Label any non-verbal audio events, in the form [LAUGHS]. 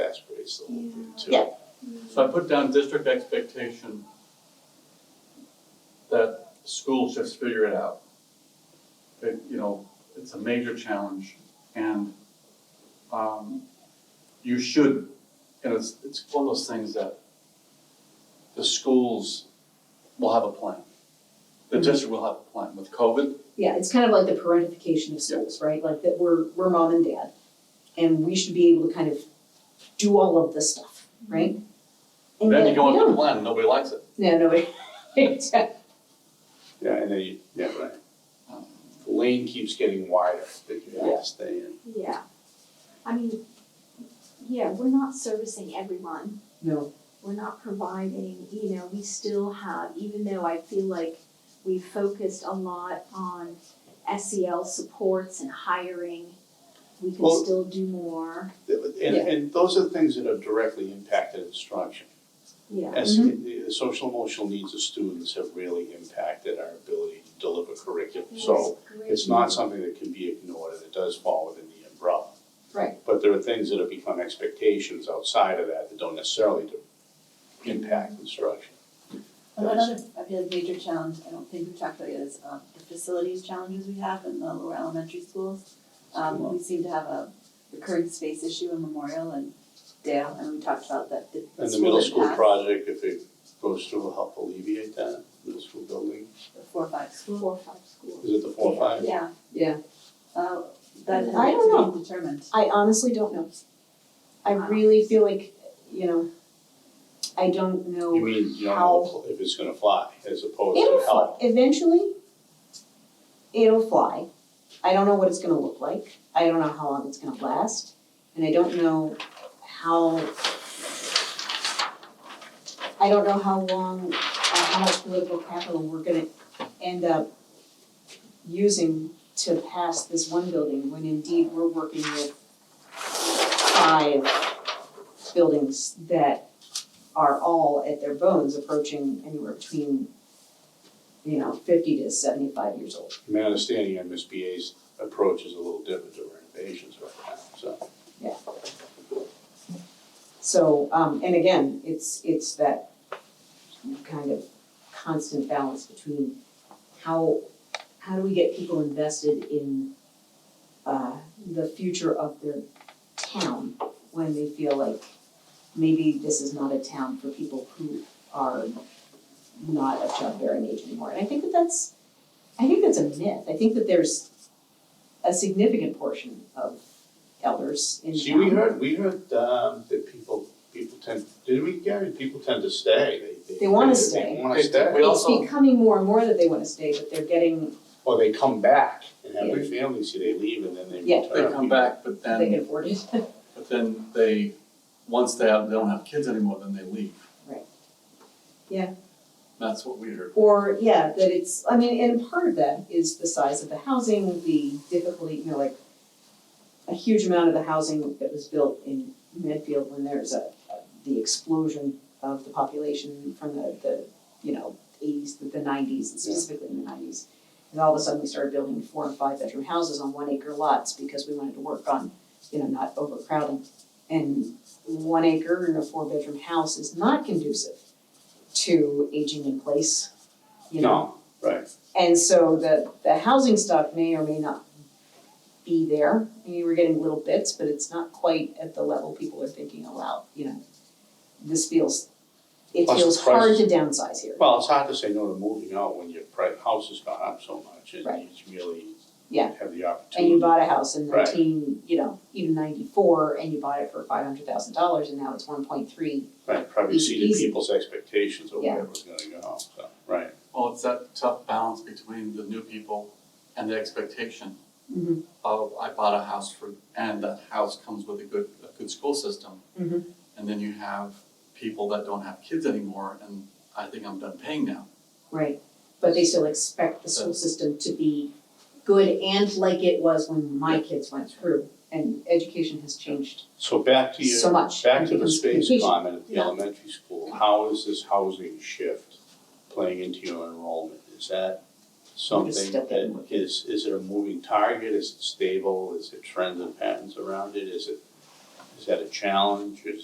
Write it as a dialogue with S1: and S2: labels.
S1: varies a little bit too.
S2: Yeah.
S3: So I put down district expectation that schools just figure it out. That, you know, it's a major challenge and, um, you should, and it's, it's one of those things that the schools will have a plan. The
S2: Mm-hmm.
S3: district will have a plan with COVID,
S2: Yeah, it's kind of like the parentification of schools, right? Like that we're, we're mom and dad, and we should be able to kind of do all of this stuff, right? And
S3: then you
S2: yet
S3: go
S2: we
S3: into the
S2: don't.
S3: plan, nobody likes it.
S2: Yeah, nobody, [LAUGHS] exactly,
S1: Yeah, and then you, yeah, right.
S3: um,
S1: The lane keeps getting wider that you have to stay in.
S4: Yeah, I mean, yeah, we're not servicing everyone,
S2: no,
S4: we're not providing, you know, we still have, even though I feel like we've focused a lot on SEL supports and hiring, we can
S1: Well-
S4: still do more,
S1: And, and those are things that are directly impacted instruction.
S4: yeah.
S2: Mm-hmm.
S1: As, the social emotional needs of students have really impacted our ability to deliver curriculum. So it's not something that can be ignored and it does fall within the umbrella.
S2: Right.
S1: But there are things that have become expectations outside of that that don't necessarily do- impact instruction.
S5: And one other, I feel like major challenge, I don't think we've talked about yet, is um the facilities challenges we have in the lower elementary schools. Um we seem to have a recurring space issue in Memorial and Dale, and we talked about that the
S1: And the
S5: school
S1: middle
S5: didn't
S1: school
S5: have
S1: project, uh, if it goes through, will help alleviate that, middle school building,
S5: the Four or five schools.
S4: Four, or five schools.
S1: is it the four or five?
S5: Yeah.
S2: Yeah.
S5: Uh that
S2: I
S5: has
S2: don't
S5: to be determined.
S2: I honestly don't know. I
S4: Wow.
S2: really feel like, you know, I don't know.
S1: You mean, you don't know if it's gonna fly as opposed
S2: It'll
S1: to
S2: fly,
S1: help?
S2: eventually, it'll fly. I don't know what it's gonna look like, I don't know how long it's gonna last, and I don't know how I don't know how long, uh, how much political capital we're gonna end up using to pass this one building, when indeed we're working with five buildings that are all at their bones approaching anywhere between, you know, fifty to seventy-five years old.
S1: My understanding, MSBA's approach is a little different to renovations right now, so.
S2: So, um, and again, it's, it's that kind of constant balance between how, how do we get people invested in, uh, the future of their town when they feel like maybe this is not a town for people who are not of childbearing age anymore. And I think that that's, I think that's a myth. I think that there's a significant portion of elders in town.
S1: See, we heard, we heard, um, that people, people tend, didn't we, Gary, people tend to stay, they, they.
S2: They wanna
S1: They
S2: stay.
S1: wanna stay,
S3: We
S2: it's
S3: also-
S2: becoming more and more that they wanna stay, but they're getting,
S1: or they come back and have their families, see, they leave and then they
S2: Yeah.
S1: return.
S3: They come back, but
S2: they can
S3: then,
S2: afford it.
S3: but then they, once they have, they don't have kids anymore, then they leave.
S2: Right. Yeah.
S3: That's what we heard.
S2: Or, yeah, that it's, I mean, and part of that is the size of the housing, the difficulty, you know, like a huge amount of the housing that was built in Medfield when there's a, a- the explosion of the population from the, the, you know, eighties, the nineties, and
S1: Yeah.
S2: specifically in the nineties. And all of a sudden, we started building four and five bedroom houses on one acre lots because we wanted to work on, you know, not overcrowding. And one acre in a four bedroom house is not conducive to aging in place, you know?
S1: No, right,
S2: And so the, the housing stock may or may not be there. I mean, we're getting little bits, but it's not quite at the level people are thinking, oh wow, you know, this feels, it
S1: Plus the
S2: feels hard to downsize here.
S1: well, it's hard to say no to moving out when your pri- house has gone up so much and
S2: Right.
S1: you really
S2: Yeah.
S1: have the opportunity.
S2: And you bought a house in
S1: Right.
S2: nineteen, you know, even ninety-four, and you bought it for five hundred thousand dollars, and now it's one point three.
S1: Right, probably
S2: It's
S1: exceeded
S2: easy.
S1: people's expectations of
S2: Yeah.
S1: where it was gonna go, so, right.
S3: Well, it's that tough balance between the new people and the expectation
S2: Mhm.
S3: of I bought a house for, and that house comes with a good, a good school system.
S2: Mhm.
S3: And then you have people that don't have kids anymore and I think I'm done paying now.
S2: Right. But they still expect the school system to be good and like it was when my kids went through, and education has changed
S1: So back to
S2: so
S1: your,
S2: much.
S1: back to the
S2: Becomes
S1: space
S2: complication.
S1: comment at the
S2: Yeah.
S1: elementary school, how is this housing shift playing into your enrollment? Is that something
S2: still getting
S1: that is, is it a moving target, is it stable, is it trends and patterns around it, is it, is that a challenge, is